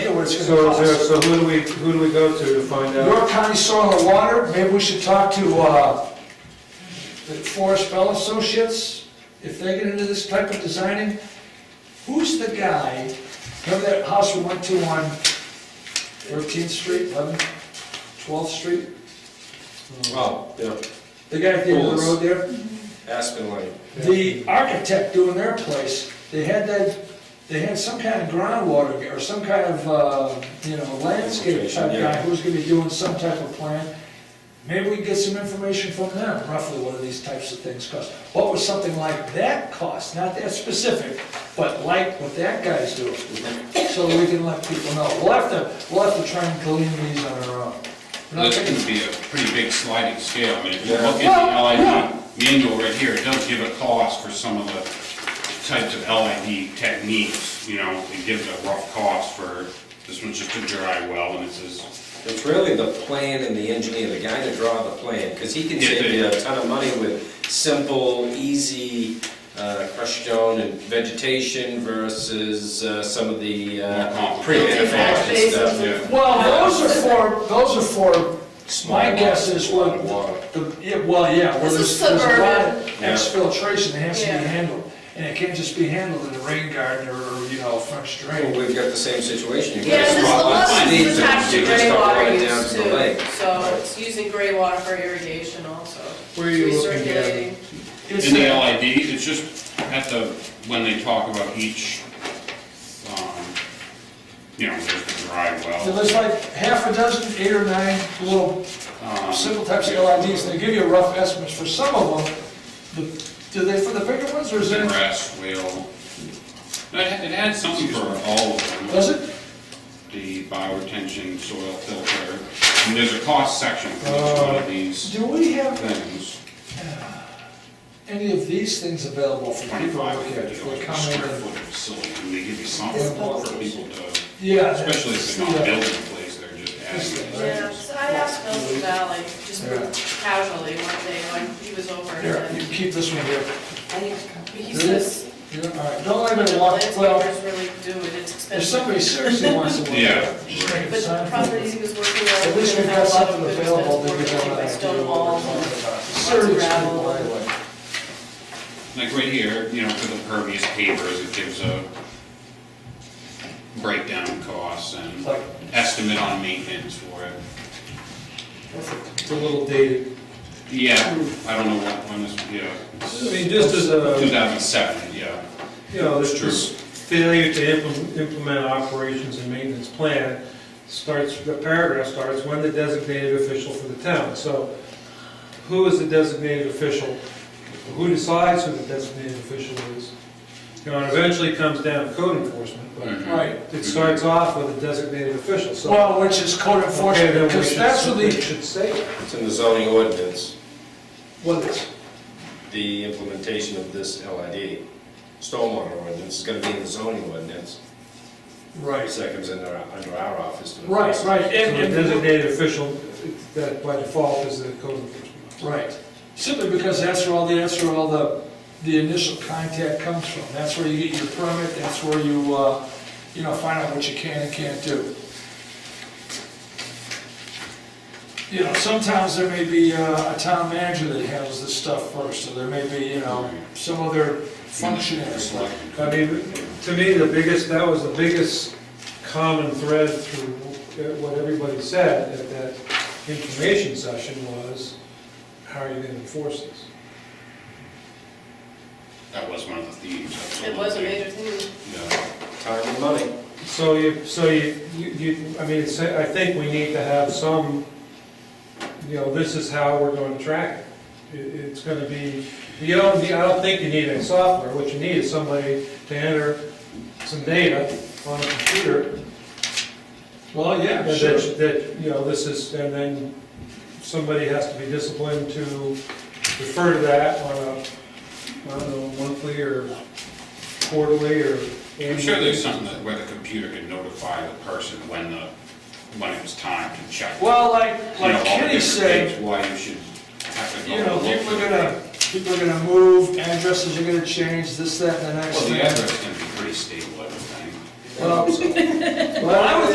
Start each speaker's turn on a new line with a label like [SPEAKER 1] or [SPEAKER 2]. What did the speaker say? [SPEAKER 1] what it's gonna
[SPEAKER 2] So,
[SPEAKER 1] cost.
[SPEAKER 2] so who do we, who do we go to to find out?
[SPEAKER 1] York County Soil and Water, maybe we should talk to, uh, the Forest Bell Associates, if they get into this type of designing. Who's the guy, remember that house we went to on Thirteenth Street, Eleventh, Twelfth Street?
[SPEAKER 3] Oh, yeah,
[SPEAKER 1] The guy at the end of the road there?
[SPEAKER 3] Aspen Lane.
[SPEAKER 1] The architect doing their place, they had that, they had some kind of groundwater or some kind of, uh, you know, landscape type
[SPEAKER 3] Yeah.
[SPEAKER 1] guy who's gonna be doing some type of plan. Maybe we can get some information from them, roughly what do these types of things cost? What would something like that cost? Not that specific, but like what that guy's doing. So we can let people know. We'll have to, we'll have to try and glean these on our own. We're not
[SPEAKER 4] This
[SPEAKER 1] taking-
[SPEAKER 4] can be a pretty big sliding scale, I mean, if you
[SPEAKER 3] Yeah.
[SPEAKER 4] look at the LID manual right here, it does give a cost for some of the types of LID techniques, you know, it gives a rough cost for, this one's just a dry well, and it says,
[SPEAKER 3] It's really the plan and the engineer, the guy to draw the plan, because he can
[SPEAKER 4] Yeah,
[SPEAKER 3] save
[SPEAKER 4] yeah,
[SPEAKER 3] you
[SPEAKER 4] yeah.
[SPEAKER 3] a ton of money with simple, easy uh, crushed stone and vegetation versus uh, some of the
[SPEAKER 4] More
[SPEAKER 3] uh,
[SPEAKER 4] complicated.
[SPEAKER 3] pre-manufactured
[SPEAKER 5] Yeah.
[SPEAKER 3] stuff.
[SPEAKER 4] yeah.
[SPEAKER 1] Well, those are for, those are for, my
[SPEAKER 3] Small
[SPEAKER 1] guess
[SPEAKER 3] water,
[SPEAKER 1] is what,
[SPEAKER 3] small water.
[SPEAKER 1] the, yeah, well, yeah, well,
[SPEAKER 5] This
[SPEAKER 1] there's,
[SPEAKER 5] is
[SPEAKER 1] there's a lot of
[SPEAKER 5] suburban.
[SPEAKER 3] Yeah.
[SPEAKER 1] exfiltration that has to be
[SPEAKER 5] Yeah.
[SPEAKER 1] handled. And it can't just be handled in a rain garden or, you know, French
[SPEAKER 3] Well,
[SPEAKER 1] drain.
[SPEAKER 3] We've got the same situation. You've got
[SPEAKER 5] Yeah,
[SPEAKER 3] a
[SPEAKER 5] this the
[SPEAKER 3] spot like
[SPEAKER 5] lot
[SPEAKER 3] Steve's,
[SPEAKER 5] is attached to
[SPEAKER 3] you just
[SPEAKER 5] gray
[SPEAKER 3] don't
[SPEAKER 5] water
[SPEAKER 3] run it down
[SPEAKER 5] use
[SPEAKER 3] to the lake.
[SPEAKER 5] too, so it's using gray water for irrigation also.
[SPEAKER 2] Where are you
[SPEAKER 5] It's
[SPEAKER 2] looking at?
[SPEAKER 5] recirculating.
[SPEAKER 1] It's
[SPEAKER 4] in the
[SPEAKER 1] a-
[SPEAKER 4] LID, it's just at the, when they talk about each, um, you know, there's the dry
[SPEAKER 1] So
[SPEAKER 4] well.
[SPEAKER 1] There's like half a dozen, eight or nine little
[SPEAKER 4] um,
[SPEAKER 1] simple types of LIDs, and they give you rough estimates for some of them. The- Do they, for the bigger ones, or is
[SPEAKER 4] The
[SPEAKER 1] it,
[SPEAKER 4] grass wheel. No, It had- it had something for all of them.
[SPEAKER 1] does it?
[SPEAKER 4] the bioretention soil filter. And there's a cost section for each one of these
[SPEAKER 1] Do we have
[SPEAKER 4] things.
[SPEAKER 1] any of these things available for people
[SPEAKER 4] Twenty-five,
[SPEAKER 1] out here?
[SPEAKER 4] fifty
[SPEAKER 1] For
[SPEAKER 4] dollars a
[SPEAKER 1] comment
[SPEAKER 4] square
[SPEAKER 1] and-
[SPEAKER 4] foot facility, and they give you something for people to,
[SPEAKER 1] Yeah.
[SPEAKER 4] especially if they're not building a place, they're just adding.
[SPEAKER 5] Yeah, so I asked Milton Valley, just casually one day when he was over,
[SPEAKER 1] Here, you
[SPEAKER 5] and
[SPEAKER 1] keep this one here.
[SPEAKER 5] he says,
[SPEAKER 1] Yeah, all right. Don't let it walk, well,
[SPEAKER 5] landscapers really do it, it's
[SPEAKER 1] if
[SPEAKER 5] expensive.
[SPEAKER 1] somebody seriously wants to look at it, just make
[SPEAKER 5] But
[SPEAKER 1] it
[SPEAKER 5] the
[SPEAKER 1] sign for
[SPEAKER 5] properties
[SPEAKER 1] it.
[SPEAKER 5] he was working
[SPEAKER 1] At
[SPEAKER 5] on,
[SPEAKER 1] least
[SPEAKER 5] didn't
[SPEAKER 1] we've got
[SPEAKER 5] have a lot of
[SPEAKER 1] something
[SPEAKER 5] good
[SPEAKER 1] available, they
[SPEAKER 5] working
[SPEAKER 1] can have an
[SPEAKER 5] like
[SPEAKER 1] idea
[SPEAKER 5] stone
[SPEAKER 1] of what we're
[SPEAKER 5] walls.
[SPEAKER 1] talking
[SPEAKER 5] and-
[SPEAKER 1] about. Seriously,
[SPEAKER 5] gravel.
[SPEAKER 1] by the way.
[SPEAKER 4] Like right here, you know, for the pervious pavers, it gives a breakdown in costs and
[SPEAKER 1] Like-
[SPEAKER 4] estimate on maintenance for it.
[SPEAKER 2] It's a little dated.
[SPEAKER 4] Yeah, I don't know what, when this, yeah,
[SPEAKER 2] I mean, just as a,
[SPEAKER 4] two thousand seven, yeah.
[SPEAKER 2] you know, this
[SPEAKER 4] It's true.
[SPEAKER 2] this failure to implement- implement operations and maintenance plan starts, the paragraph starts, when the designated official for the town. So who is the designated official? Who decides who the designated official is? You know, and eventually it comes down to code enforcement, but
[SPEAKER 4] Mhm.
[SPEAKER 1] Right.
[SPEAKER 2] it starts off with a designated official, so.
[SPEAKER 1] Well, which is code
[SPEAKER 2] Okay, then
[SPEAKER 1] enforcement,
[SPEAKER 2] we
[SPEAKER 1] because
[SPEAKER 2] should-
[SPEAKER 1] that's what
[SPEAKER 2] we
[SPEAKER 1] the,
[SPEAKER 2] Should say. it.
[SPEAKER 3] It's in the zoning ordinance,
[SPEAKER 1] what is,
[SPEAKER 3] the implementation of this LID. Stormwater ordinance is gonna be in the zoning ordinance.
[SPEAKER 1] right,
[SPEAKER 3] Seconds in our, under our office. to-
[SPEAKER 1] right, right,
[SPEAKER 2] So the
[SPEAKER 1] and, and,
[SPEAKER 2] designated official, that by default is the code enforcement.
[SPEAKER 1] right. Simply because that's where all the, that's where all the, the initial contact comes from. That's where you get your permit, that's where you, uh, you know, find out what you can and can't do. You know, sometimes there may be uh, a town manager that handles this stuff first, or there may be, you know, some other functionaries. like-
[SPEAKER 2] I mean, to me, the biggest, that was the biggest common thread through what everybody said at that information session was, how are you gonna enforce this?
[SPEAKER 4] That was one of the themes.
[SPEAKER 5] It was a major thing.
[SPEAKER 4] Yeah.
[SPEAKER 3] Time and money.
[SPEAKER 2] So you, so you, you, you- I mean, it's- I think we need to have some, you know, this is how we're gonna track it. It- It's gonna be, you don't, I don't think you need any software, what you need is somebody to enter some data on a computer
[SPEAKER 1] Well, yeah,
[SPEAKER 2] That-
[SPEAKER 1] sure.
[SPEAKER 2] That, that, you know, this is, and then somebody has to be disciplined to refer to that on a, I don't know, monthly or quarterly or annual.
[SPEAKER 4] I'm sure there's something that, where the computer could notify the person when the, when it was time to check.
[SPEAKER 1] Well, like,
[SPEAKER 4] You know, all
[SPEAKER 1] like
[SPEAKER 4] the
[SPEAKER 1] Kenny
[SPEAKER 4] different
[SPEAKER 1] said,
[SPEAKER 4] things, Why you should have to go.
[SPEAKER 1] you know,
[SPEAKER 4] and look
[SPEAKER 1] people
[SPEAKER 4] for-
[SPEAKER 1] are gonna, people are gonna move, addresses are gonna change, this, that, and the next
[SPEAKER 4] Well,
[SPEAKER 1] thing.
[SPEAKER 4] the address can be pretty stable, everything.
[SPEAKER 1] Well, well, I would